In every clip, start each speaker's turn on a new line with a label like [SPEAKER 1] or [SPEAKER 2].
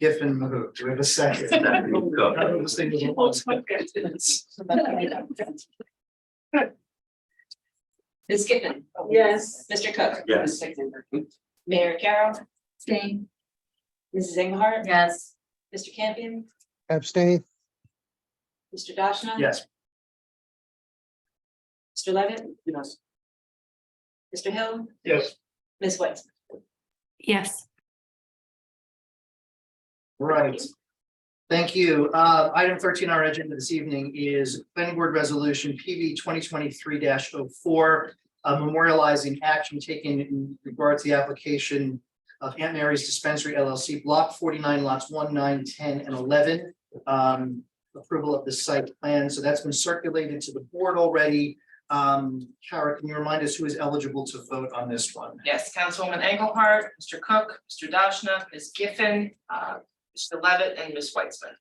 [SPEAKER 1] Giffen moved. Do we have a second? I was thinking it was-
[SPEAKER 2] Ms. Giffen.
[SPEAKER 3] Yes.
[SPEAKER 2] Mr. Cook.
[SPEAKER 4] Yes.
[SPEAKER 2] Mayor Carroll,
[SPEAKER 3] Staying.
[SPEAKER 2] Mrs. Engelhardt,
[SPEAKER 3] Yes.
[SPEAKER 2] Mr. Campion,
[SPEAKER 5] abstain,
[SPEAKER 2] Mr. Dashna.
[SPEAKER 1] Yes,
[SPEAKER 2] Mr. Levitt. Yes. Mr. Hill,
[SPEAKER 1] yes,
[SPEAKER 2] Ms. White.
[SPEAKER 6] Yes,
[SPEAKER 1] right. Thank you. Uh, item thirteen on our agenda this evening is planning board resolution PB twenty twenty-three 4 Uh, memorializing action taken in regard to the application of Aunt Mary's Dispensary LLC Block forty-nine lots 1, 9, 10, and eleven. Um, approval of the site plan. So that's been circulated to the board already. Um, Kara, can you remind us who is eligible to vote on this one?
[SPEAKER 7] Yes, Councilwoman Engelhardt, Mr. Cook, Mr. Dashna, Ms. Giffen, uh, Mr. Levitt, and Ms. Weitzman.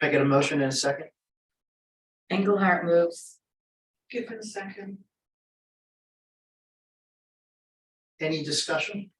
[SPEAKER 1] Can I get a motion in a second?
[SPEAKER 3] Engelhardt moves.
[SPEAKER 7] Giffen, second.
[SPEAKER 1] Any discussion?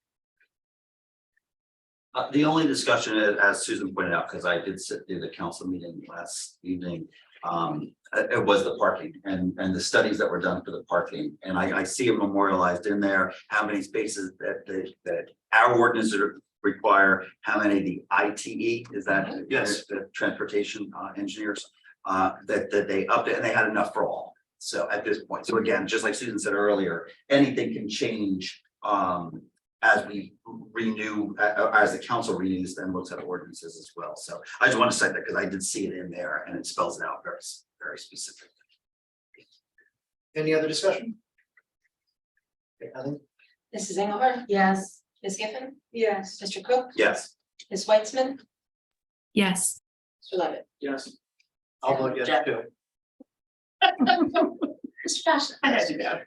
[SPEAKER 4] Uh, the only discussion, uh, as Susan pointed out, because I did sit through the council meeting last evening. Um, uh, it, was the parking and, and the studies that were done for the parking, and I, I see it memorialized in there, how many spaces that, that, that our ordinances are- require, how many the I T E, is that?
[SPEAKER 1] Yes.
[SPEAKER 4] The transportation uh, engineers, uh, that, that they upped it, and they had enough for all. So at this point, so again, just like Susan said earlier, anything can change, um, as we renew, uh, uh, as the council renews and looks at ordinances as well. So I just want to say that because I did see it in there and it spells it out very, s- very specific.
[SPEAKER 1] Any other discussion? Okay, Ellen?
[SPEAKER 2] Mrs. Engelhardt,
[SPEAKER 3] Yes.
[SPEAKER 2] Ms. Giffen,
[SPEAKER 3] Yes.
[SPEAKER 2] Mr. Cook,
[SPEAKER 4] Yes,
[SPEAKER 2] Ms. Weitzman,
[SPEAKER 6] yes,
[SPEAKER 2] Mr. Levitt.
[SPEAKER 7] Yes.
[SPEAKER 1] I'll vote yes too.
[SPEAKER 2] Mr. Dashna.
[SPEAKER 7] I had to go.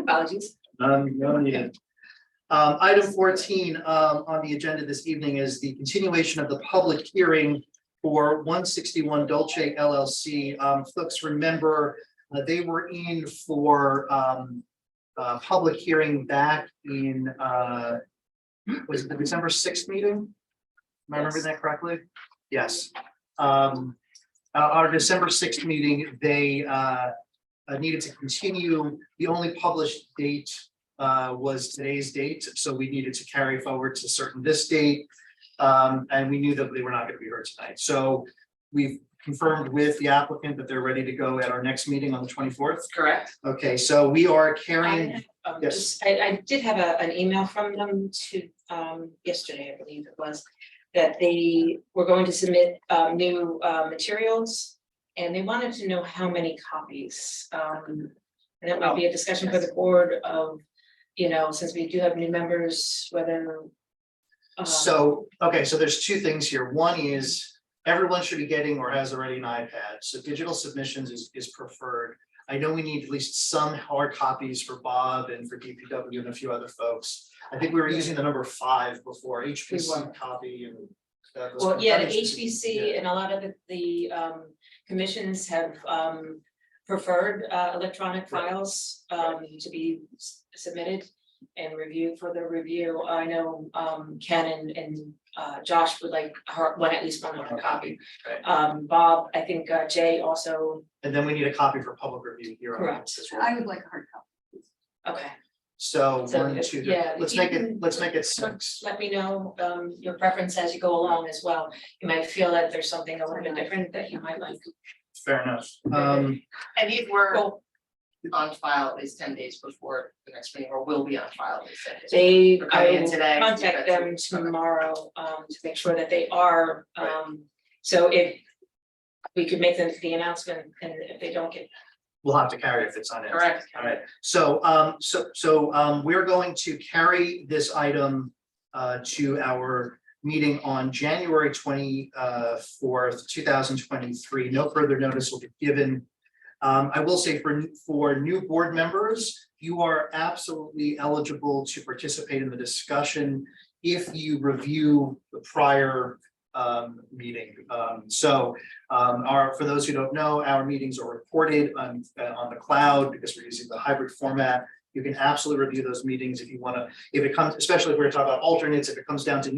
[SPEAKER 2] Apologies.
[SPEAKER 1] Um, no need. Um, item fourteen, um, on the agenda this evening is the continuation of the public hearing for one sixty-one Dolce LLC. Um, folks remember, uh, they were in for, um, uh, public hearing back in, uh, was it the December sixth meeting? Am I remembering that correctly? Yes. Um, uh, our December sixth meeting, they, uh, uh, needed to continue. The only published date uh, was today's date, so we needed to carry forward to certain this date. Um, and we knew that they were not gonna be heard tonight, so we've confirmed with the applicant that they're ready to go at our next meeting on the twenty-fourth.
[SPEAKER 7] Correct.
[SPEAKER 1] Okay, so we are
[SPEAKER 2] I
[SPEAKER 1] carrying,
[SPEAKER 2] have, um,
[SPEAKER 1] Yes.
[SPEAKER 2] just- I, I did have a, an email from them to, um, yesterday, I believe it was, that they were going to submit, um, new, uh, materials. And they wanted to know how many copies, um, and that might be a discussion for the board of, you know, since we do have new members, whether. um,
[SPEAKER 1] so, okay, so there's two things here. One is everyone should be getting or has already an iPad, so digital submissions is, is preferred. I know we need at least some hard copies for Bob and for DPW and a few other folks. I think we were using the number five before,
[SPEAKER 2] We were.
[SPEAKER 1] HPC copy and. that was-
[SPEAKER 2] Well, yeah, the
[SPEAKER 1] that is-
[SPEAKER 2] HBC and a lot of the, the, um, commissions have, um, preferred, uh, electronic
[SPEAKER 1] Right.
[SPEAKER 2] files, um, to be s- submitted and reviewed for the review. I know, um, Ken and, and, uh, Josh would like her, one, at least one more copy.
[SPEAKER 1] Right.
[SPEAKER 2] Um, Bob, I think uh, Jay also,
[SPEAKER 1] And then we need a copy for public review here. on
[SPEAKER 2] Correct.
[SPEAKER 1] this as well.
[SPEAKER 3] would like a hard copy.
[SPEAKER 2] okay,
[SPEAKER 1] So
[SPEAKER 2] So
[SPEAKER 1] one,
[SPEAKER 2] it's-
[SPEAKER 1] two,
[SPEAKER 2] yeah,
[SPEAKER 1] three. let's
[SPEAKER 2] you
[SPEAKER 1] make
[SPEAKER 2] can-
[SPEAKER 1] it, let's make it six.
[SPEAKER 2] let me know, um, your preference as you go along as well. You might feel that there's something a little bit different that you might like.
[SPEAKER 1] Fair enough. Um,
[SPEAKER 7] And these were
[SPEAKER 2] Cool.
[SPEAKER 7] on file at least ten days before the next meeting, or will be on file at least ten days.
[SPEAKER 2] They,
[SPEAKER 7] They're
[SPEAKER 2] I
[SPEAKER 7] coming in
[SPEAKER 2] will
[SPEAKER 7] today.
[SPEAKER 2] contact them tomorrow, um, to make sure that they are, um, so if. We could make them the announcement and if they don't get.
[SPEAKER 1] we'll have to carry if it's on it.
[SPEAKER 7] Correct.
[SPEAKER 1] All right, so, um, so, so, um, we're going to carry this item, uh, to our meeting on January twenty, uh, fourth, two thousand twenty-three. No further notice will be given. Um, I will say for, for new board members, you are absolutely eligible to participate in the discussion if you review the prior, um, meeting. Um, so, um, our, for those who don't know, our meetings are recorded on, uh, on the cloud because we're using the hybrid format. You can absolutely review those meetings if you want to, if it comes, especially if we're talking about alternates, if it comes down to